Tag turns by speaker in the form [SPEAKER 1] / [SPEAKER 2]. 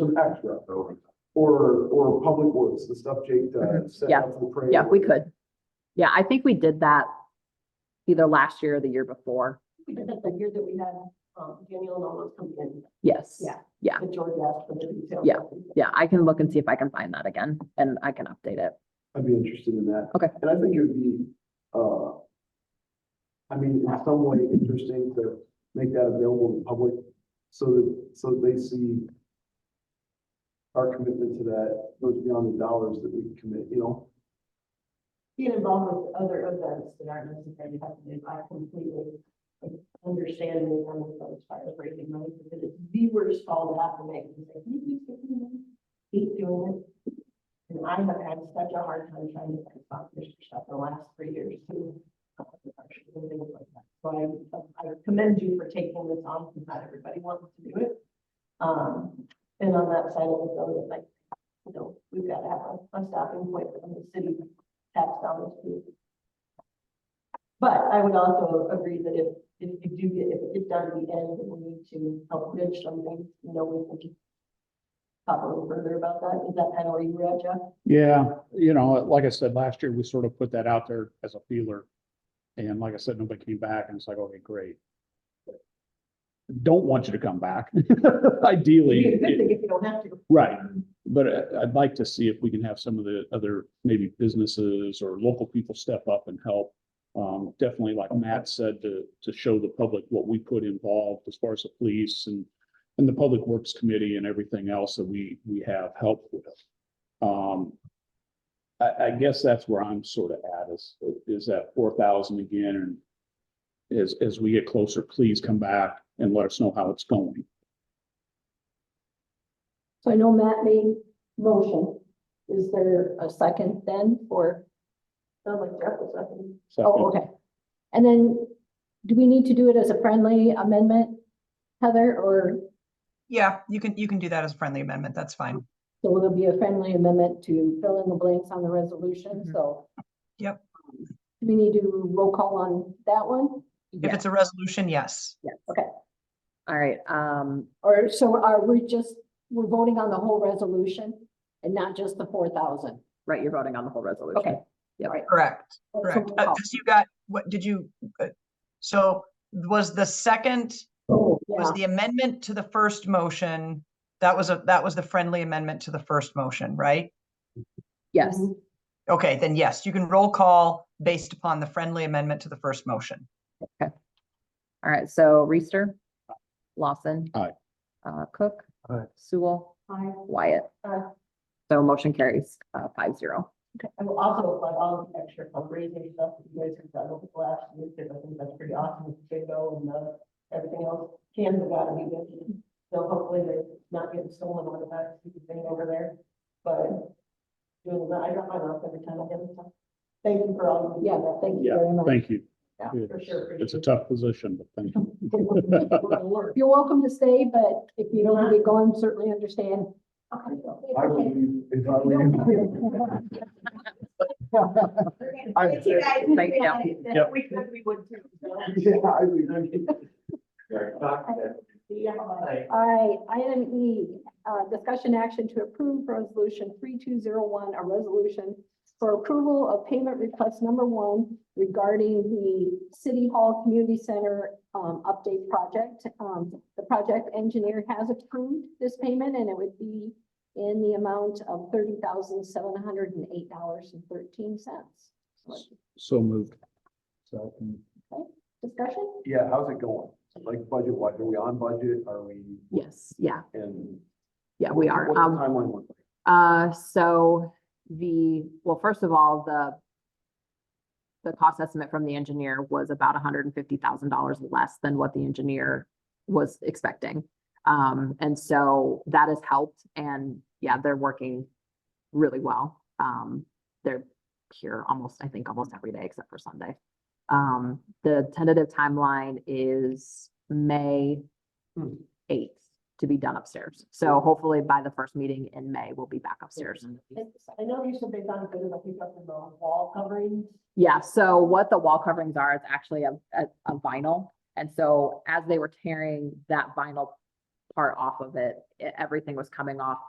[SPEAKER 1] some extra, or, or public works, the stuff Jake does. set
[SPEAKER 2] Mm-hmm. Yeah.
[SPEAKER 1] up the parade.
[SPEAKER 2] Yeah, we could. Yeah, I think we did that either last year or the year before.
[SPEAKER 3] We did that the year that we had, um, Daniel and all those coming in,
[SPEAKER 2] Yes.
[SPEAKER 3] Yeah.
[SPEAKER 2] Yeah.
[SPEAKER 3] the George asked for the details.
[SPEAKER 2] Yeah. Yeah, I can look and see if I can find that again and I can update it.
[SPEAKER 1] I'd be interested in that.
[SPEAKER 2] Okay.
[SPEAKER 1] And I think it would be, uh, I mean, in some way interesting to make that available to the public so that, so that they see our commitment to that goes beyond the dollars that we commit, you know?
[SPEAKER 3] Being involved with other events that aren't necessarily happening, I completely understand the kind of those firefighting money, because it's the worst call to have to make. It's like, "Can you please keep doing this? Keep doing it. And I have had such a hard time trying to find sponsors for stuff the last three years too. uh, actually, and things like that. So I, I commend you for taking this on, because not everybody wants to do it. Um, and on that side of it, though, it's like, you know, we've got to have a- a stopping point from the city tax dollars too. But I would also agree that if, if you do get, if it's done at the end, we need to help bridge something, you know, we can just talk a little further about that. Is that kind of where you were at, Jeff?
[SPEAKER 4] Yeah, you know, like I said, last year, we sort of put that out there as a feeler. And like I said, nobody came back and it's like, okay, great. Don't want you to come back. Ideally,
[SPEAKER 3] It'd be a good
[SPEAKER 4] it-
[SPEAKER 3] thing if you don't have to.
[SPEAKER 4] right, but I- I'd like to see if we can have some of the other maybe businesses or local people step up and help. Um, definitely like Matt said, to, to show the public what we put involved as far as the police and, and the Public Works Committee and everything else that we, we have help with. Um, I, I guess that's where I'm sort of at is, is that four thousand again and as, as we get closer, please come back and let us know how it's going.
[SPEAKER 5] So I know Matt made motion. Is there a second then for,
[SPEAKER 3] Sounds like Jeff was talking.
[SPEAKER 5] oh,
[SPEAKER 4] Second.
[SPEAKER 5] okay. And then do we need to do it as a friendly amendment, Heather, or
[SPEAKER 6] Yeah, you can, you can do that as a friendly amendment. That's fine.
[SPEAKER 5] so will there be a friendly amendment to fill in the blanks on the resolution?
[SPEAKER 6] Mhm.
[SPEAKER 5] So.
[SPEAKER 6] Yep.
[SPEAKER 5] Do we need to roll call on that one?
[SPEAKER 6] If it's a resolution, yes.
[SPEAKER 2] All right, um,
[SPEAKER 5] Or so are we just, we're voting on the whole resolution and not just the four thousand?
[SPEAKER 2] right, you're voting on the whole resolution.
[SPEAKER 5] Okay.
[SPEAKER 6] Correct,
[SPEAKER 5] So
[SPEAKER 6] correct.
[SPEAKER 5] roll
[SPEAKER 6] Uh,
[SPEAKER 5] call.
[SPEAKER 6] Because you got, what, did you, uh, so was the second,
[SPEAKER 5] Oh,
[SPEAKER 6] was
[SPEAKER 5] yeah.
[SPEAKER 6] the amendment to the first motion, that was a, that was the friendly amendment to the first motion, right?
[SPEAKER 2] Yes,
[SPEAKER 3] Mm-hmm.
[SPEAKER 5] Mm-hmm.
[SPEAKER 6] Okay, then yes, you can roll call based upon the friendly amendment to the first motion.
[SPEAKER 2] all right, so Reister, Lawson.
[SPEAKER 4] Aye.
[SPEAKER 2] Uh, Cook.
[SPEAKER 1] Aye.
[SPEAKER 2] Sewell,
[SPEAKER 3] Hi.
[SPEAKER 2] Wyatt.
[SPEAKER 3] Aye.
[SPEAKER 2] So motion carries, uh, five zero.
[SPEAKER 3] I will also applaud all the extra fundraising stuff that you guys have done over the last year, because I think that's pretty awesome, with the bingo and the, uh, everything else. Cans have gotta be good, so hopefully they're not getting stolen on the back, you can thing over there, but. Doing that, I drop mine off every time I get it. Thank you for all. you do.
[SPEAKER 5] Yeah, thank you very much.
[SPEAKER 4] Thank you.
[SPEAKER 3] Yeah,
[SPEAKER 4] Yes.
[SPEAKER 3] for sure.
[SPEAKER 4] It's a tough position, but thank you.
[SPEAKER 3] Good work.
[SPEAKER 5] You're welcome to stay, but if you don't want to be gone, certainly understand.
[SPEAKER 1] I would leave if I were you. I-
[SPEAKER 2] Thank you.
[SPEAKER 4] Yep.
[SPEAKER 3] We could, we would too. so.
[SPEAKER 1] Yeah, I would.
[SPEAKER 3] Yeah.
[SPEAKER 5] All right, item E, uh, discussion action to approve resolution three two zero one, a resolution for approval of payment request number one regarding the City Hall Community Center, um, update project. Um, the project engineer has approved this payment and it would be in the amount of thirty thousand, seven hundred and eight dollars and thirteen cents.
[SPEAKER 4] So moved.
[SPEAKER 3] mm,
[SPEAKER 5] Discussion?
[SPEAKER 1] Yeah, how's it going? Like budget wise, are we on budget? Are we?
[SPEAKER 2] Yes, yeah,
[SPEAKER 1] And.
[SPEAKER 2] yeah, we are.
[SPEAKER 1] What's the
[SPEAKER 2] Um,
[SPEAKER 1] timeline look like?
[SPEAKER 2] Uh, so the, well, first of all, the the cost estimate from the engineer was about hundred and fifty thousand dollars less than what the engineer was expecting. Um, and so that has helped and yeah, they're working really well. Um, they're here almost, I think, almost every day except for Sunday. Um, the tentative timeline is May
[SPEAKER 1] Hmm.
[SPEAKER 2] eighth to be done upstairs. So hopefully by the first meeting in May, we'll be back upstairs.
[SPEAKER 3] I know you said they sound good about picking up the wall coverings.
[SPEAKER 2] Yeah, so what the wall coverings are, is actually a, a, a vinyl. And so as they were tearing that vinyl part off of it. E- Everything was coming off the